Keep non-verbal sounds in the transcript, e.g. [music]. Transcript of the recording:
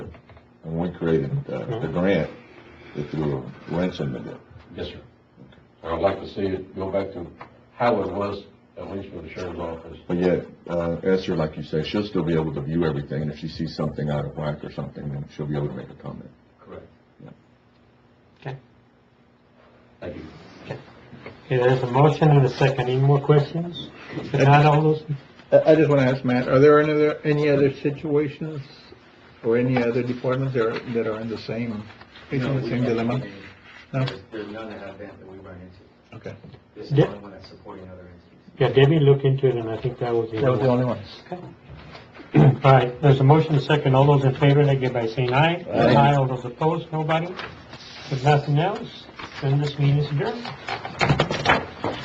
we created, uh, the grant that you were wrenching with it. Yes, sir. I'd like to see it go back to how it was, at least for the sheriff's office. But yet, uh, Esther, like you say, she'll still be able to view everything, and if she sees something out of whack or something, then she'll be able to make a comment. Correct. Okay. Thank you. Okay, there's a motion and a second. Any more questions? If not, all those, I, I just want to ask Matt, are there any other, any other situations or any other departments that are, that are in the same, No, facing the we same haven't dilemma? seen No? any. There's, there's none that have been, that we run into. Okay. This is the Yeah. only one that's supporting other entities. yeah, Debbie looked into it, and I think that was the... That was [clears throat] the only ones. All right, there's a motion, and a second. All those in favor, indicate by saying aye. Aye. All those opposed, nobody. If nothing else, then this meeting is adjourned.